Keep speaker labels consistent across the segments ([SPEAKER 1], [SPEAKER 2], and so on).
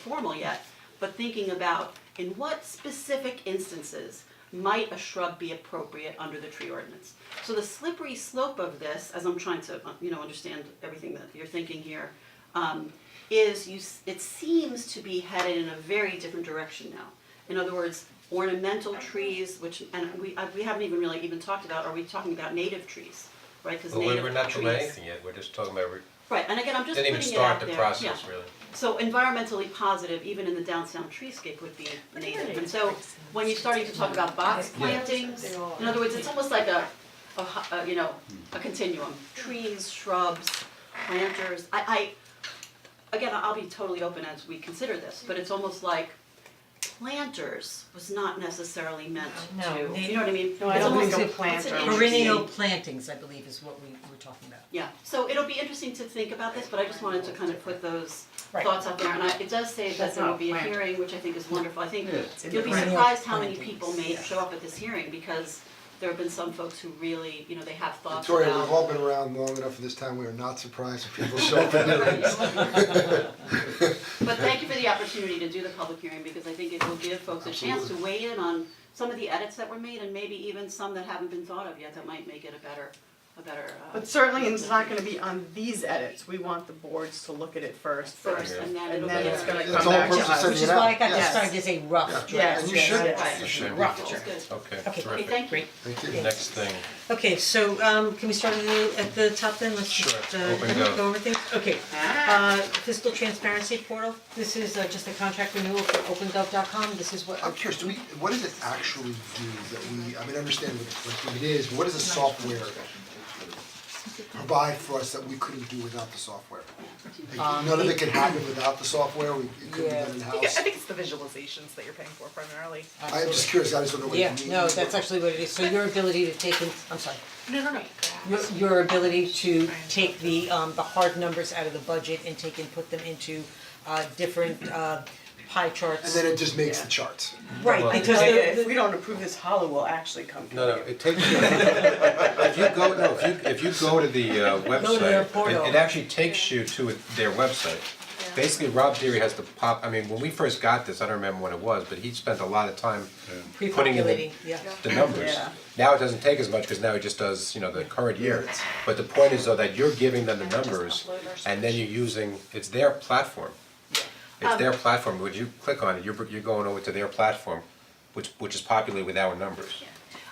[SPEAKER 1] formal yet, but thinking about in what specific instances might a shrub be appropriate under the tree ordinance? So the slippery slope of this, as I'm trying to, uh, you know, understand everything that you're thinking here, um, is you, s- it seems to be headed in a very different direction now. In other words, ornamental trees, which, and we, I- we haven't even really even talked about, are we talking about native trees, right? 'Cause
[SPEAKER 2] But we-
[SPEAKER 1] native
[SPEAKER 2] we're not doing
[SPEAKER 1] trees-
[SPEAKER 2] anything yet, we're just talking about, we
[SPEAKER 1] Right, and again, I'm just
[SPEAKER 2] didn't
[SPEAKER 1] putting it
[SPEAKER 2] even
[SPEAKER 1] out there,
[SPEAKER 2] start the
[SPEAKER 1] yeah.
[SPEAKER 2] process really.
[SPEAKER 1] So environmentally positive, even in the downtown treescape would be native, and so when you're starting to talk about box plantings, in other words, it's almost like a, a, hu- a, you know, a continuum, trees, shrubs, planters, I, I, again, I'll be totally open as we consider this, but it's almost like planters was not necessarily meant
[SPEAKER 3] No,
[SPEAKER 1] to,
[SPEAKER 3] they-
[SPEAKER 1] you know what I mean?
[SPEAKER 4] No, I
[SPEAKER 1] It's
[SPEAKER 4] don't
[SPEAKER 1] almost
[SPEAKER 4] think
[SPEAKER 1] a-
[SPEAKER 4] so.
[SPEAKER 1] it's an
[SPEAKER 4] Planter.
[SPEAKER 1] interesting-
[SPEAKER 3] Perennial plantings, I believe, is what we were talking about.
[SPEAKER 1] Yeah, so it'll be interesting to think about this, but I just wanted to kind of put those
[SPEAKER 4] Right.
[SPEAKER 1] thoughts out there, and I, it does say that
[SPEAKER 4] That's
[SPEAKER 1] there will
[SPEAKER 4] not
[SPEAKER 1] be a
[SPEAKER 4] planned.
[SPEAKER 1] hearing, which I think is wonderful, I think
[SPEAKER 5] Yes.
[SPEAKER 1] you'll be
[SPEAKER 3] Right.
[SPEAKER 1] surprised how many
[SPEAKER 3] Plantings,
[SPEAKER 1] people may
[SPEAKER 3] yeah.
[SPEAKER 1] show up at this hearing, because there have been some folks who really, you know, they have thoughts about.
[SPEAKER 6] Victoria, we've all been around long enough in this town, we are not surprised if people show up at hearings.
[SPEAKER 1] But thank you for the opportunity to do the public hearing, because I think it will give folks a chance to weigh in on some of the edits that were made, and maybe even some that haven't been thought of yet, that might make it a better, a better, uh,
[SPEAKER 4] But certainly, it's not gonna be on these edits, we want the boards to look at it first.
[SPEAKER 1] first, and then
[SPEAKER 4] And
[SPEAKER 1] it'll be.
[SPEAKER 4] then it's
[SPEAKER 1] a-
[SPEAKER 4] gonna
[SPEAKER 6] That's
[SPEAKER 4] come
[SPEAKER 6] all
[SPEAKER 4] back to
[SPEAKER 6] purpose of
[SPEAKER 4] us.
[SPEAKER 6] setting
[SPEAKER 3] Which is
[SPEAKER 6] it up.
[SPEAKER 3] why I got
[SPEAKER 4] Yes.
[SPEAKER 3] started to say rough draft.
[SPEAKER 4] Yes,
[SPEAKER 6] And you should,
[SPEAKER 4] yes.
[SPEAKER 6] you should.
[SPEAKER 1] Rough draft.
[SPEAKER 2] Okay,
[SPEAKER 3] Okay,
[SPEAKER 1] Okay,
[SPEAKER 2] terrific.
[SPEAKER 1] thank you.
[SPEAKER 6] Thank you.
[SPEAKER 2] Next thing,
[SPEAKER 3] Okay, so um can we start at the at the top then, let's just uh
[SPEAKER 2] Sure. Open
[SPEAKER 3] go
[SPEAKER 2] up.
[SPEAKER 3] over things, okay. Uh fiscal transparency portal, this is uh, just a contract renewal for opengov.com, this is what
[SPEAKER 6] I'm curious, do we, what does it actually do that we, I mean, I understand what it- what it is, but what does the software provide for us that we couldn't do without the software? Like, None of it can happen without the software, we, it couldn't be
[SPEAKER 3] Yeah.
[SPEAKER 6] done
[SPEAKER 4] I think,
[SPEAKER 6] in-house.
[SPEAKER 4] I think it's the visualizations that you're paying for primarily.
[SPEAKER 6] I'm just curious, I just don't know what it
[SPEAKER 3] Yeah,
[SPEAKER 6] means.
[SPEAKER 3] no, that's actually what it is, so your ability to take in, I'm sorry,
[SPEAKER 4] No, no, no.
[SPEAKER 3] your your ability to take the um the hard numbers out of the budget and take and put them into uh different uh pie
[SPEAKER 6] And
[SPEAKER 3] charts.
[SPEAKER 6] then it just makes the charts.
[SPEAKER 3] Right, because
[SPEAKER 4] Like,
[SPEAKER 3] the- the-
[SPEAKER 4] if we don't approve this, Hollow will actually come to you.
[SPEAKER 2] no, no, it takes you, if you go, no, if you, if you go to the uh,
[SPEAKER 3] Go to their
[SPEAKER 2] website,
[SPEAKER 3] portal.
[SPEAKER 2] it, it actually takes you to it- their website. Basically, Rob Deary has to pop, I mean, when we first got this, I don't remember what it was, but he spent a lot of time putting in the,
[SPEAKER 3] pre-populating, yeah.
[SPEAKER 2] the numbers.
[SPEAKER 4] Yeah.
[SPEAKER 2] Now it doesn't take as much, cause now it just does, you know, the current year. But the point is though that you're giving them the numbers and then you're using, it's their platform. It's
[SPEAKER 3] Um,
[SPEAKER 2] their platform, would you click on it, you're, you're going over to their platform, which, which is populated with our numbers.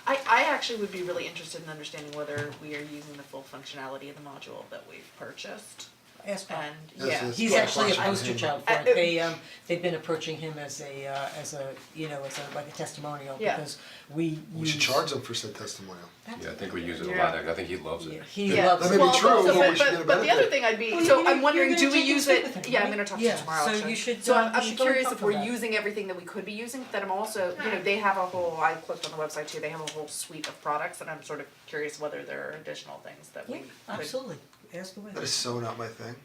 [SPEAKER 7] I, I actually would be really interested in understanding whether we are using the full functionality of the module that we've purchased.
[SPEAKER 3] Ask Bob.
[SPEAKER 7] And
[SPEAKER 6] Yes,
[SPEAKER 7] yeah,
[SPEAKER 6] yes.
[SPEAKER 3] He's
[SPEAKER 6] Yeah.
[SPEAKER 3] actually a
[SPEAKER 6] Yeah.
[SPEAKER 3] poster child for
[SPEAKER 7] Uh,
[SPEAKER 3] it,
[SPEAKER 7] it-
[SPEAKER 3] they um, they've been approaching him as a uh, as a, you know, as a, like a testimonial,
[SPEAKER 7] Yeah.
[SPEAKER 3] because we
[SPEAKER 6] We should
[SPEAKER 3] use-
[SPEAKER 6] charge them for said testimonial.
[SPEAKER 2] Yeah, I think we use it a
[SPEAKER 4] Yeah.
[SPEAKER 2] lot, I think he loves it.
[SPEAKER 3] He
[SPEAKER 7] Yeah.
[SPEAKER 3] loves
[SPEAKER 6] That
[SPEAKER 3] it.
[SPEAKER 6] may be
[SPEAKER 7] Well,
[SPEAKER 6] true,
[SPEAKER 7] so-
[SPEAKER 6] but we should
[SPEAKER 7] but-
[SPEAKER 6] get a
[SPEAKER 7] but the other
[SPEAKER 6] benefit.
[SPEAKER 7] thing I'd be,
[SPEAKER 3] Well,
[SPEAKER 7] so
[SPEAKER 3] you're gonna-
[SPEAKER 7] I'm wondering,
[SPEAKER 3] you're
[SPEAKER 7] do
[SPEAKER 3] gonna
[SPEAKER 7] we
[SPEAKER 3] take a
[SPEAKER 7] use
[SPEAKER 3] swig
[SPEAKER 7] it,
[SPEAKER 3] with him,
[SPEAKER 7] yeah, I'm
[SPEAKER 3] right?
[SPEAKER 7] gonna talk to
[SPEAKER 3] Yeah,
[SPEAKER 7] you tomorrow,
[SPEAKER 3] so
[SPEAKER 7] actually.
[SPEAKER 3] you should,
[SPEAKER 7] So
[SPEAKER 3] uh,
[SPEAKER 7] I'm,
[SPEAKER 3] you
[SPEAKER 7] I'm
[SPEAKER 3] should go
[SPEAKER 7] curious
[SPEAKER 3] talk
[SPEAKER 7] if we're
[SPEAKER 3] about it.
[SPEAKER 7] using everything that we could be using, but I'm also, you know, they have a whole, I clicked on the website too, they have a whole suite of products, and I'm sort of curious whether there are additional things that we
[SPEAKER 3] Yeah,
[SPEAKER 7] could.
[SPEAKER 3] absolutely, ask away.
[SPEAKER 6] That is so not my thing.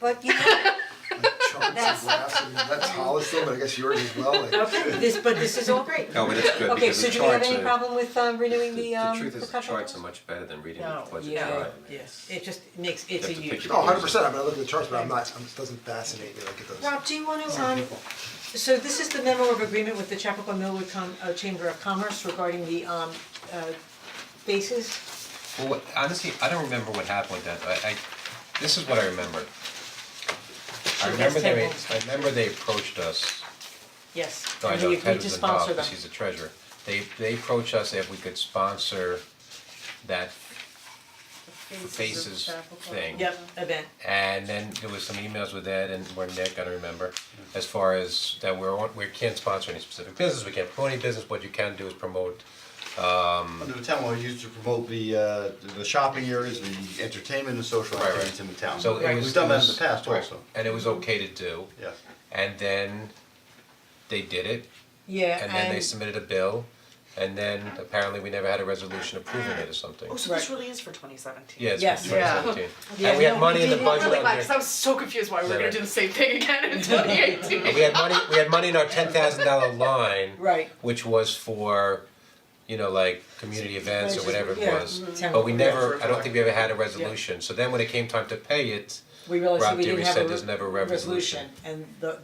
[SPEAKER 3] But you know,
[SPEAKER 6] Like charts and graphs and that's Hollis thing, but I guess yours as well, like.
[SPEAKER 3] this, but this is all great.
[SPEAKER 2] No, but it's good
[SPEAKER 3] Okay,
[SPEAKER 2] because
[SPEAKER 3] so
[SPEAKER 2] the
[SPEAKER 3] do we have
[SPEAKER 2] charts
[SPEAKER 3] any
[SPEAKER 2] are,
[SPEAKER 3] problem with uh, renewing the
[SPEAKER 2] the
[SPEAKER 3] um,
[SPEAKER 2] truth is the
[SPEAKER 3] perpetual
[SPEAKER 2] charts are
[SPEAKER 3] bonds?
[SPEAKER 2] much better than reading
[SPEAKER 7] No.
[SPEAKER 2] the budget
[SPEAKER 3] Yeah.
[SPEAKER 2] chart.
[SPEAKER 3] Yes, it just makes, it's a
[SPEAKER 2] have to pick
[SPEAKER 3] huge.
[SPEAKER 2] your
[SPEAKER 6] No, hundred percent, I mean, I look at the charts, but I'm not, I'm- it doesn't fascinate me like it does.
[SPEAKER 3] Rob, do you wanna, um, so this is the memo of agreement with the Chapel Millwood Com- uh, Chamber of Commerce regarding the um, uh, bases?
[SPEAKER 2] Well, what, honestly, I don't remember what happened with that, I, I, this is what I remember. I remember they,
[SPEAKER 3] tabled.
[SPEAKER 2] I remember they approached us,
[SPEAKER 3] Yes,
[SPEAKER 2] no, I
[SPEAKER 3] and
[SPEAKER 2] know
[SPEAKER 3] we
[SPEAKER 2] Ted
[SPEAKER 3] agreed to
[SPEAKER 2] was involved,
[SPEAKER 3] sponsor them.
[SPEAKER 2] cause he's the treasurer. They, they approached us if we could sponsor that faces thing.
[SPEAKER 3] Yep, event.
[SPEAKER 2] And then there was some emails with Ed and where Nick, I don't remember, as far as that we're on, we can't sponsor any specific business, we can't promote any business, what you can do is promote
[SPEAKER 8] Under the town law, used to promote the uh the shopping areas, the entertainment and social
[SPEAKER 2] Right, right.
[SPEAKER 8] activities in the town.
[SPEAKER 2] So it was.
[SPEAKER 8] We've done that in
[SPEAKER 2] it was-
[SPEAKER 8] the past also,
[SPEAKER 2] And it was okay to do,
[SPEAKER 8] yes.
[SPEAKER 2] and then they did it,
[SPEAKER 3] Yeah,
[SPEAKER 2] and then they submitted a bill, and then apparently we never had a resolution approving it or something.
[SPEAKER 7] Oh, so this
[SPEAKER 3] Right.
[SPEAKER 7] really is for twenty seventeen.
[SPEAKER 2] Yeah, it's
[SPEAKER 3] Yes.
[SPEAKER 2] been twenty seventeen,
[SPEAKER 3] Yeah.
[SPEAKER 2] and we
[SPEAKER 3] Yeah.
[SPEAKER 2] had money in the
[SPEAKER 3] Yeah.
[SPEAKER 2] budget
[SPEAKER 7] Really,
[SPEAKER 2] under,
[SPEAKER 7] glad, 'cause I was so confused why we were
[SPEAKER 2] Right, right.
[SPEAKER 7] gonna do the same thing again in twenty eighteen.
[SPEAKER 2] and we had money, we had money in our ten thousand dollar line,
[SPEAKER 3] Right.
[SPEAKER 2] which was for, you know, like, community events or whatever it
[SPEAKER 3] Yeah.
[SPEAKER 2] was.
[SPEAKER 3] Mhm.
[SPEAKER 2] But we never,
[SPEAKER 8] for-
[SPEAKER 2] I don't think we ever had a resolution, so then when it came time to pay it,
[SPEAKER 3] we realized that
[SPEAKER 2] Rob
[SPEAKER 3] we
[SPEAKER 2] Deary
[SPEAKER 3] didn't have
[SPEAKER 2] said
[SPEAKER 3] a
[SPEAKER 2] there's never a
[SPEAKER 3] resolution, and the